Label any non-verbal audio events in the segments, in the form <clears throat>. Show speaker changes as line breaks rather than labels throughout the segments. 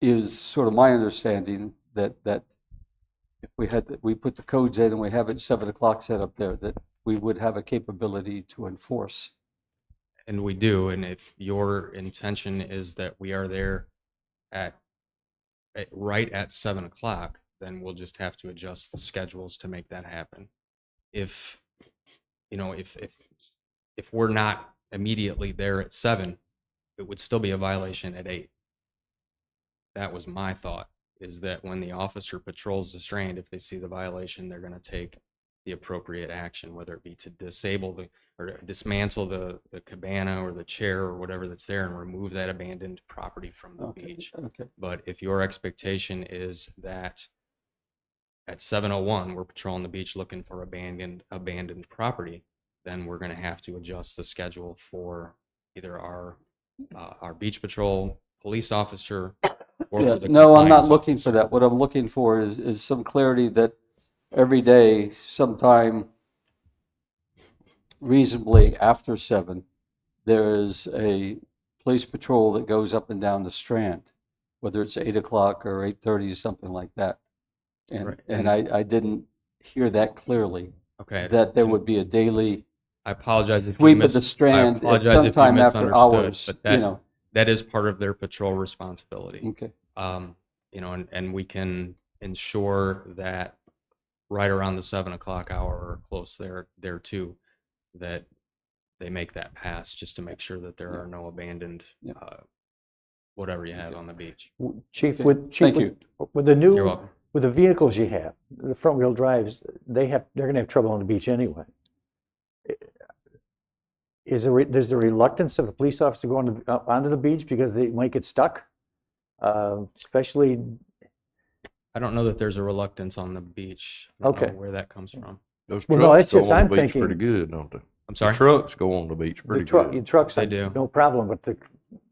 is sort of my understanding that, that if we had, we put the codes in and we have it seven o'clock set up there, that we would have a capability to enforce.
And we do, and if your intention is that we are there at, at- right at seven o'clock, then we'll just have to adjust the schedules to make that happen. If, you know, if, if, if we're not immediately there at seven, it would still be a violation at eight. That was my thought, is that when the officer patrols the strand, if they see the violation, they're gonna take the appropriate action, whether it be to disable the or dismantle the, the cabana or the chair or whatever that's there and remove that abandoned property from the
Okay,
beach.
okay.
But if your expectation is that at seven oh one, we're patrolling the beach looking for abandoned, abandoned property, then we're gonna have to adjust the schedule for either our, uh, our beach patrol, police officer. or
Yeah,
for the
no, I'm not
compliance
looking for that. What I'm looking for is, is some clarity that every day, sometime reasonably after seven, there is a police patrol that goes up and down the strand, whether it's eight o'clock or eight thirty, something like that. And,
Right,
and I, I didn't hear that clearly,
Okay,
that there
and-
would be a daily
I apologize if you
sweep of
mis-
the
I
strand at
apologize if
some
you
time after
misunderstood,
hours,
But
you
that,
know,
that is part of their patrol responsibility.
okay.
um, you know, and, and we can ensure that right around the seven o'clock hour or close there, there too, that they make that pass just to make sure that there
Yeah.
are no abandoned,
Yeah.
uh, whatever you have
Okay.
on the beach.
W- Chief,
Okay,
with, Chief,
Thank
with,
you.
with the
You're
new,
welcome.
with the vehicles you have, the front-wheel drives, they have, they're gonna have trouble on the beach anyway. Is there, re- there's the reluctance of a police officer going to, up onto the beach because they might get stuck? Uh, especially,
I don't know that there's a reluctance on the beach. I don't know
Okay.
Where that comes from.
Those
Well, no,
trucks
that's just-
go on
I'm
the beach pretty
thinking-
good, don't they?
I'm
The
sorry. <clears throat>
trucks go on the beach
the
pretty
truck, the
good.
trucks,
They
I-
do.
no problem, but the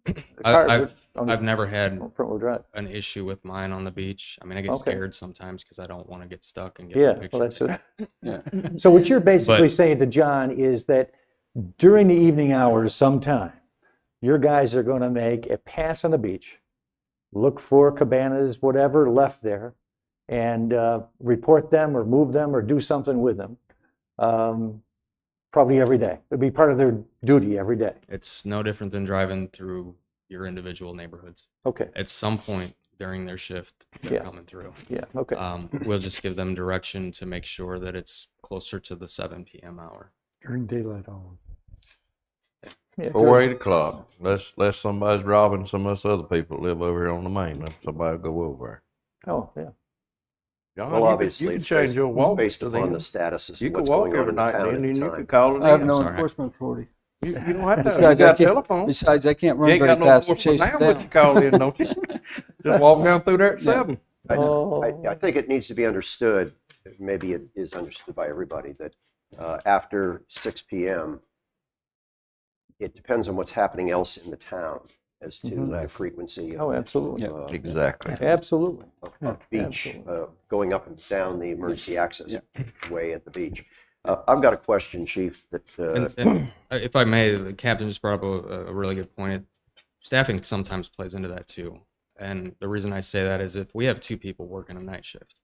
the
I,
cars
I've,
are on
I've
the
never had
front-wheel drive.
an issue with mine on the beach. I mean, I get
Okay.
scared sometimes because I don't want to get stuck and get
Yeah,
picture.
well, that's it.
Yeah.
So what you're basically
But-
saying to John is that during the evening hours sometime, your guys are going to make a pass on the beach, look for cabanas, whatever left there, and uh, report them or move them or do something with them. um, Probably every day. It'd be part of their duty every day.
It's no different than driving through your individual neighborhoods.
Okay,
at some point during their shift, they're
Yeah.
coming through.
yeah, okay.
Um, we'll just give them direction to make sure that it's closer to the 7 p.m. hour.
During daylight hours.
Yeah,
Before
good.
eight o'clock, unless, unless somebody's robbing some of us other people that live over here on the mainland, somebody go over
Oh, yeah.
there. John,
Well,
you could-
obviously,
You can
it's
change
based-
your walk
based
to
upon
them.
the status as to
You can
what's
walk
going on
every
in the
night
town
and
at
then
the
you can
time.
call it in.
I have no
sorry.
enforcement authority.
You, you don't have to, you
Besides, I
got
can't-
telephone. You
Besides, I can't run
ain't
very
got no
fast to
enforcement
chase
now,
them
but you
down.
call in, don't you? <laughs> Just walk down through there at
Yeah.
seven.
Oh,
I, I think it needs to be understood, maybe it is understood by everybody, that uh, after 6 PM, it depends on what's happening else in the town as to
Mhm.
the frequency
Oh,
of,
absolutely,
Yeah.
uh,
Exactly.
absolutely.
of- of beach,
absolutely.
uh, going up and down the emergency access way at the beach. Uh, I've got a question, Chief, that, uh,
And, and uh, if I may, the captain just brought up a, a really good point. It- Staffing sometimes plays into that too. And the reason I say that is if we have two people working a night shift,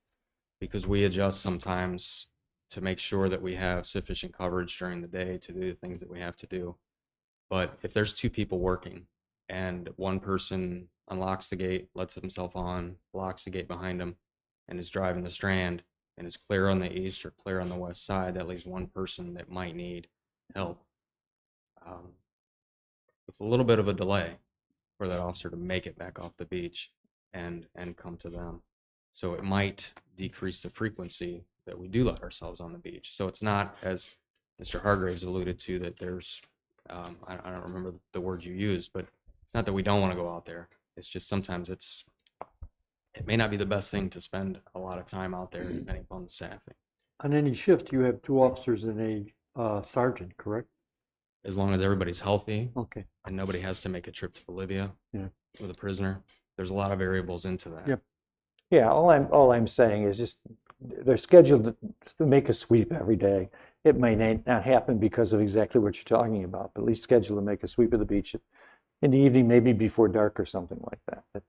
because we adjust sometimes to make sure that we have sufficient coverage during the day to do the things that we have to do. But if there's two people working and one person unlocks the gate, lets himself on, locks the gate behind him, and is driving the strand and is clear on the east or clear on the west side, that leaves one person that might need help. Um, with a little bit of a delay for that officer to make it back off the beach and and come to them. So it might decrease the frequency that we do let ourselves on the beach. So it's not as Mr. Hargraves alluded to that there's um, I, I don't remember the word you used, but it's not that we don't want to go out there. It's just sometimes it's it may not be the best thing to spend a lot of time out there depending upon the staffing.
On any shift, you have two officers and a uh, sergeant, correct?
As long as everybody's healthy,
Okay,
and nobody has to make a trip to Bolivia
Yeah.
with a prisoner. There's a lot of variables into that.
Yep.
Yeah, all I'm, all I'm saying is just, they're scheduled to- to make a sweep every day. It may na- not happen because of exactly what you're talking about, but at least schedule to make a sweep of the beach in the evening, maybe before dark or something like that. But